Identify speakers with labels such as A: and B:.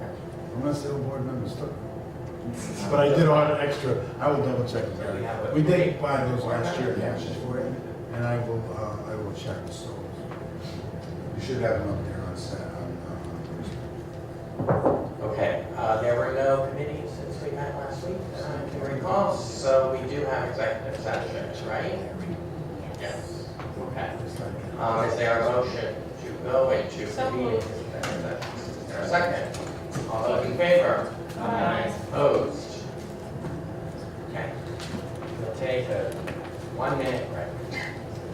A: unless they were board members too. But I did order extra, I will double check with that. We did buy those last year, the ashes for it, and I will, uh, I will check the stores. We should have them up there on Sat, on, uh, Thursday.
B: Okay, uh, there were no committees since we met last week, uh, if you recall, so we do have executive sessions, right? Yes. Okay. Um, Is there a motion to go into
C: So
B: convene
C: moved.
B: executive session? Is there a second? All those in favor?
C: Aye.
B: Opposed? Okay. We'll take a one-minute break.